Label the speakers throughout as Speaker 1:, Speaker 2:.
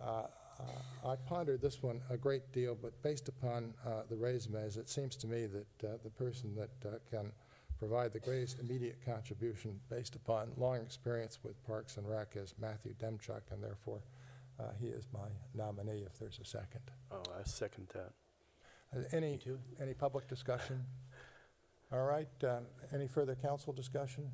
Speaker 1: Uh, I pondered this one a great deal, but based upon uh, the resumes, it seems to me that uh, the person that uh, can provide the greatest immediate contribution based upon long experience with Parks and Rec is Matthew Demchuk, and therefore uh, he is my nominee if there's a second.
Speaker 2: Oh, I second that.
Speaker 1: Uh, Any, any public discussion? All right, uh, any further council discussion?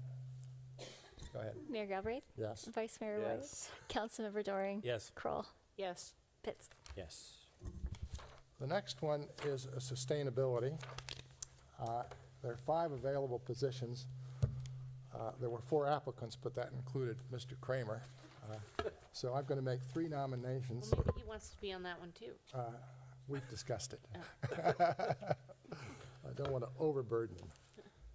Speaker 1: Go ahead,
Speaker 3: Mayor Galbraith,
Speaker 1: yes.
Speaker 3: Vice Mayor White,
Speaker 2: Yes.
Speaker 3: Councilmember Doring,
Speaker 4: Yes.
Speaker 3: Kroll,
Speaker 5: Yes.
Speaker 3: Pitts.
Speaker 4: Yes.
Speaker 1: The next one is a sustainability. Uh, There are five available positions. Uh, There were four applicants, but that included Mr. Kramer. Uh, So I'm going to make three nominations.
Speaker 5: Well, maybe he wants to be on that one, too.
Speaker 1: Uh, We've discussed it. I don't want to overburden him.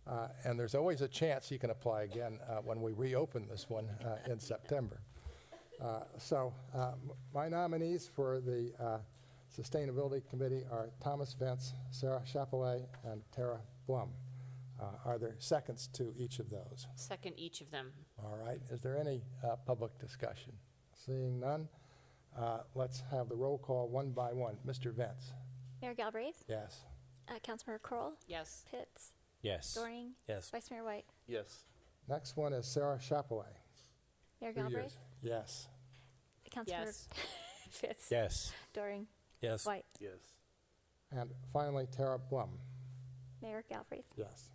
Speaker 1: Uh, And there's always a chance he can apply again uh, when we reopen this one uh, in September. Uh, So uh, m- my nominees for the uh, Sustainability Committee are Thomas Vance, Sarah Chapellet, and Tara Blum. Uh, Are there seconds to each of those?
Speaker 5: Second each of them.
Speaker 1: All right, is there any uh, public discussion? Seeing none, uh, let's have the roll call one by one. Mr. Vance?
Speaker 3: Mayor Galbraith,
Speaker 1: Yes.
Speaker 3: uh, Councilmember Kroll,
Speaker 5: Yes.
Speaker 3: Pitts,
Speaker 4: Yes.
Speaker 3: Doring,
Speaker 4: Yes.
Speaker 3: Vice Mayor White,
Speaker 2: Yes.
Speaker 1: Next one is Sarah Chapellet.
Speaker 3: Mayor
Speaker 1: Two years.
Speaker 3: Galbraith,
Speaker 1: Yes.
Speaker 3: Councilmember
Speaker 5: Yes.
Speaker 3: Pitts,
Speaker 4: Yes.
Speaker 3: Doring,
Speaker 4: Yes.
Speaker 3: White,
Speaker 2: Yes.
Speaker 1: And finally, Tara Blum.
Speaker 3: Mayor Galbraith,
Speaker 1: Yes.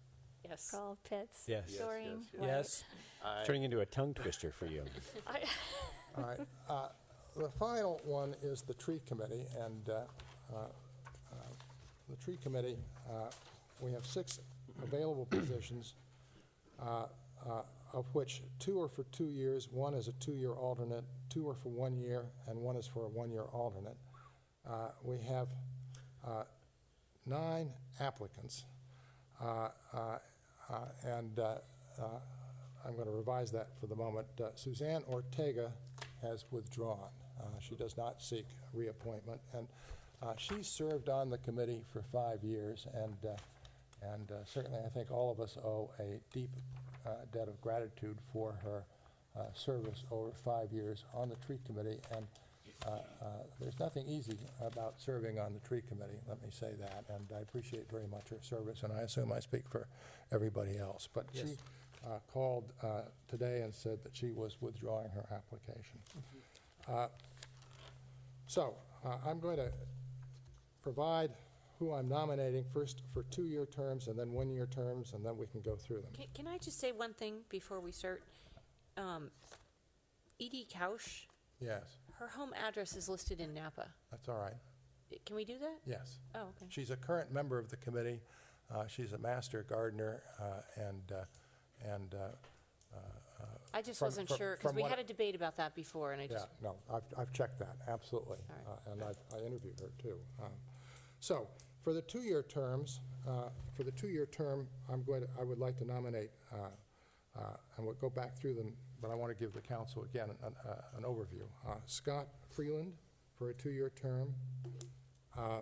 Speaker 5: Yes.
Speaker 3: Kroll, Pitts,
Speaker 4: Yes. Yes,
Speaker 3: Doring,
Speaker 2: yes, yes.
Speaker 3: White.
Speaker 4: Yes.
Speaker 2: I,
Speaker 4: Turning into a tongue twister for you.
Speaker 3: I-
Speaker 1: All right. uh, The final one is the tree committee, and uh, uh, uh, the tree committee, uh, we have six available positions, uh, uh, of which two are for two years, one is a two-year alternate, two are for one year, and one is for a one-year alternate. Uh, We have uh, nine applicants, uh, uh, uh, and uh, uh, I'm going to revise that for the moment. Uh, Suzanne Ortega has withdrawn. Uh, She does not seek reappointment, and uh, she served on the committee for five years, and, uh, and uh, certainly, I think all of us owe a deep uh, debt of gratitude for her uh, service over five years on the tree committee, and uh, uh, there's nothing easy about serving on the tree committee, let me say that, and I appreciate very much her service, and I assume I speak for everybody else, but she uh, called uh, today and said that she was withdrawing her application. Uh, So, uh, I'm going to provide who I'm nominating first for two-year terms and then one-year terms, and then we can go through them.
Speaker 5: Can, can I just say one thing before we start? Um, Edie Kausch,
Speaker 1: Yes,
Speaker 5: her home address is listed in Napa.
Speaker 1: that's all right,
Speaker 5: I- Can we do that?
Speaker 1: yes.
Speaker 5: Oh, okay.
Speaker 1: She's a current member of the committee. Uh, She's a master gardener, uh, and, uh, and, uh,
Speaker 5: I just
Speaker 1: From-
Speaker 5: wasn't
Speaker 1: from-
Speaker 5: sure, because
Speaker 1: from
Speaker 5: we
Speaker 1: what-
Speaker 5: had a debate about that before, and I
Speaker 1: yeah,
Speaker 5: just,
Speaker 1: no, I've, I've checked that, absolutely.
Speaker 5: right.
Speaker 1: Uh, And I've- I interviewed her, too. Um, So, for the two-year terms, uh, for the two-year term, I'm going to, I would like to nominate, uh, uh, and we'll go back through them, but I want to give the council again an- uh, an overview. Uh, Scott Freeland for a two-year term. Uh,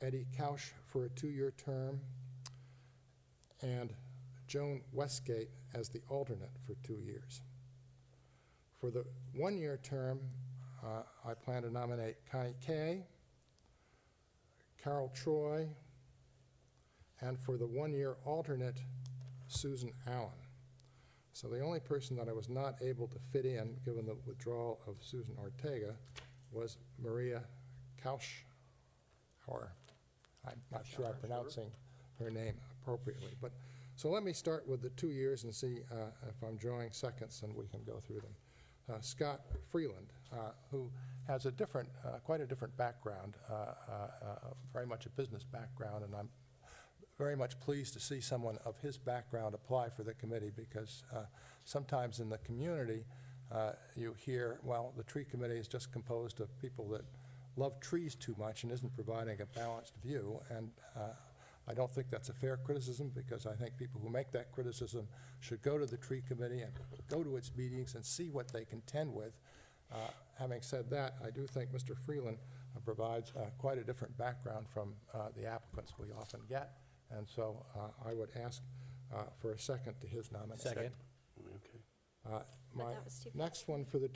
Speaker 1: Eddie Couch for a two-year term, and Joan Westgate as the alternate for two years. For the one-year term, uh, I plan to nominate Connie Kay, Carol Troy, and for the one-year alternate, Susan Allen. So the only person that I was not able to fit in, given the withdrawal of Susan Ortega, was Maria Kausch, or, I'm not sure I'm pronouncing her name appropriately, but, so let me start with the two years and see uh, if I'm drawing seconds, and we can go through them. Uh, Scott Freeland, uh, who has a different, uh, quite a different background, uh, uh, uh, very much a business background, and I'm very much pleased to see someone of his background apply for the committee because uh, sometimes in the community, uh, you hear, well, the tree committee is just composed of people that love trees too much and isn't providing a balanced view. And uh, I don't think that's a fair criticism because I think people who make that criticism should go to the tree committee and go to its meetings and see what they contend with. Uh, Having said that, I do think Mr. Freeland uh, provides uh, quite a different background from uh, the applicants we often get, and so uh, I would ask uh, for a second to his nomination.
Speaker 4: Second.
Speaker 2: okay.
Speaker 1: Uh, My
Speaker 3: that was too fast.
Speaker 1: next one for the